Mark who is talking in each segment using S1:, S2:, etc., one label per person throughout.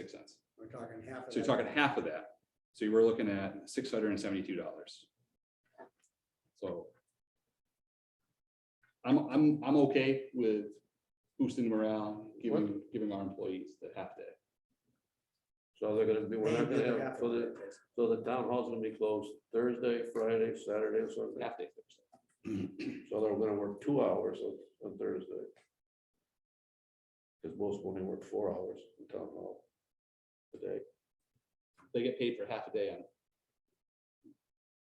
S1: six cents.
S2: We're talking half of
S1: So you're
S2: that.
S1: talking half of that. So you were looking at six hundred and seventy-two dollars. So. I'm, I'm, I'm okay with boosting morale, giving, giving our employees the half day.
S3: So they're gonna be, we're not gonna
S2: Half
S3: have,
S2: of
S3: so the,
S2: that.
S3: so the town hall's gonna be closed Thursday, Friday, Saturday, and Sunday.
S1: Half day.
S3: Mm-hmm. So they're gonna work two hours on, on Thursday. Cause most only work four hours in town hall. Today,
S1: They get paid for half a day on.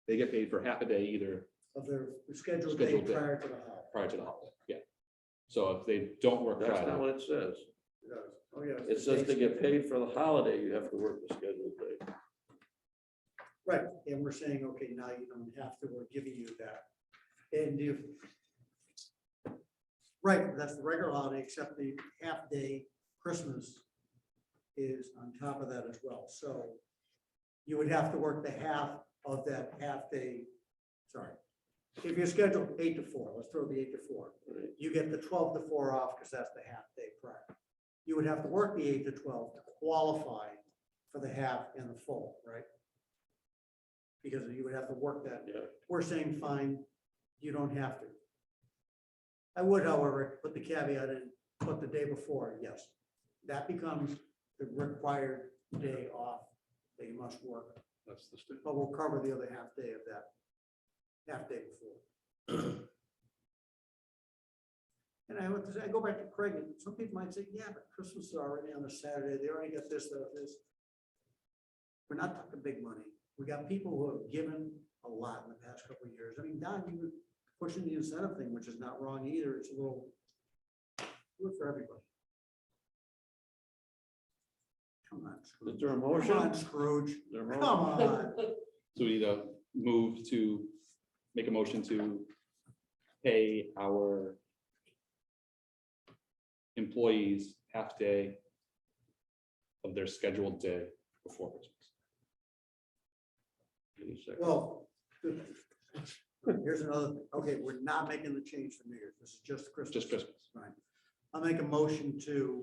S1: They get paid for half a day either
S2: Of their scheduled day
S1: Scheduled day.
S2: prior to the holiday.
S1: prior to the holiday, yeah. So if they don't work
S3: that's not
S1: Friday,
S3: what it says.
S2: Oh, yeah.
S3: It says to get paid for the holiday, you have to work the scheduled day.
S2: Right, and we're saying, okay, now you don't have to, we're giving you that. And if. Right, that's the regular holiday, except the half day Christmas is on top of that as well, so. You would have to work the half of that half day, sorry. If you're scheduled eight to four, let's throw the eight to four,
S3: right?
S2: you get the twelve to four off because that's the half day prior. You would have to work the eight to twelve to qualify for the half and the full, right? Because you would have to work that.
S3: Yeah.
S2: We're saying, fine, you don't have to. I would, however, put the caveat in, put the day before, yes. That becomes the required day off that you must work,
S1: that's the
S2: but we'll cover the other half day of that, half day before. And I would, I go back to Craig, and some people might say, yeah, but Christmas is already on a Saturday, they already got this, that, this. We're not talking big money, we got people who have given a lot in the past couple of years, I mean, Don, you were pushing the incentive thing, which is not wrong either, it's a little. Good for everybody. Come on,
S3: Is
S2: Scrooge,
S3: there a
S2: come
S3: motion?
S2: on, Scrooge,
S3: Is there a
S2: come
S3: motion?
S2: on,
S1: So we need to move to, make a motion to pay our employees half day of their scheduled day before Christmas.
S3: Give me a second.
S2: well. Here's another, thing. okay, we're not making the change for New Year's, this is just Christmas.
S1: Just Christmas.
S2: I'll make a motion to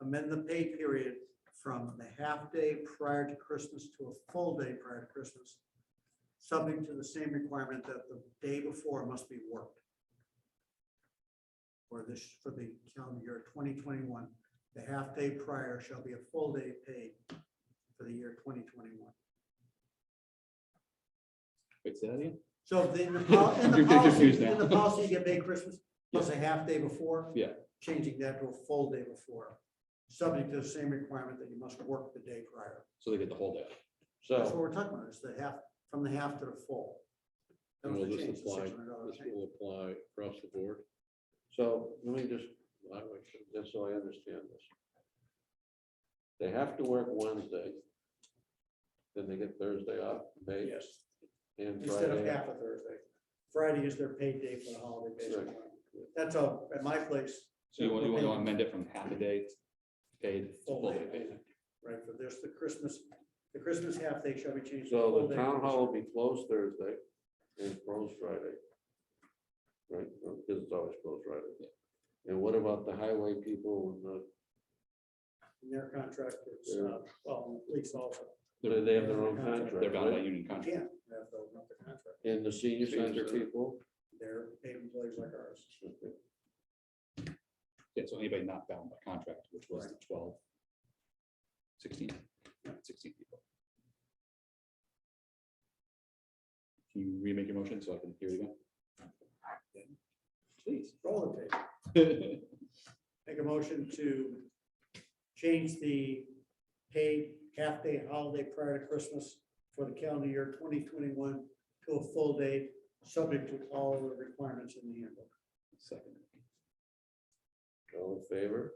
S2: amend the pay period from the half day prior to Christmas to a full day prior to Christmas, subject to the same requirement that the day before must be worked. For this, for the calendar year twenty twenty-one, the half day prior shall be a full day paid for the year twenty twenty-one.
S1: Wait, say that again?
S2: So if the- in the, pol- in the
S1: You're getting
S2: policy,
S1: confused now.
S2: in the policy, you get paid Christmas plus a half day before.
S1: Yeah.
S2: Changing that to a full day before, subject to the same requirement that you must work the day prior.
S1: So they get the whole day.
S2: That's what
S3: So
S2: we're talking about, is the half, from the half to the full. That
S4: And
S2: was
S4: will
S2: the
S4: this
S2: change, the
S4: apply-
S2: $600
S4: This
S2: change.
S4: will apply across the board.
S3: So let me just, I want to- just so I understand this. They have to work Wednesday. Then they get Thursday off, May
S2: Yes,
S3: and
S2: instead of
S3: Friday.
S2: half a Thursday. Friday is their paid day for the holiday, basically.
S3: Right.
S2: That's all, at my place,
S1: So you want, you want to amend it from half a day paid to
S2: full
S1: full
S2: day,
S1: day paid.
S2: right, for this, the Christmas, the Christmas half day shall be changed. to full
S3: So
S2: day
S3: the town hall will be closed Thursday and closed Friday. Right, Well, because it's always closed Friday. And what about the highway people and the,
S2: In their contract, it's, uh, well, police also.
S3: do they have their own
S1: They're bound
S3: contract,
S1: by
S3: right?
S1: union
S2: You
S1: contract.
S2: can't have the not the contract.
S3: And the senior
S1: Senior
S3: center
S1: center.
S3: people?
S2: They're paid employees like ours.
S3: Okay.
S1: Yeah, so anybody not bound by contract, which was the 12, 16, 16 people. Can you remake your motion so I can hear you again? Please.
S2: Roll the tape. Make a motion to change the paid half-day holiday prior to Christmas for the calendar year twenty twenty-one to a full day, subject to all the requirements in the handbook.
S1: Second.
S3: All in favor?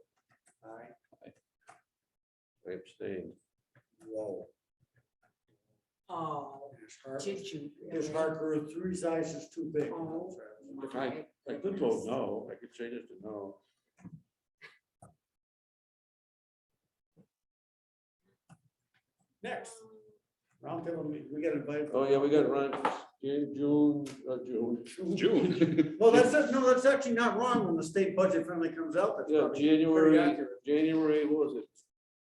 S2: All right.
S3: I abstain.
S2: Whoa.
S5: Oh,
S2: His heart-
S5: did you?
S2: His heart grew three sizes too big.
S5: Oh.
S3: If I- I could vote no, I could change it to no.
S2: Next, roundtable, meeting. we got invited.
S3: Oh, yeah, we got Ron, June, June, uh, June,
S1: June.
S2: Well, that's, no, that's actually not wrong when the state budget finally comes out. That's
S3: yeah,
S2: probably pretty
S3: January,
S2: accurate.
S3: January, what was it,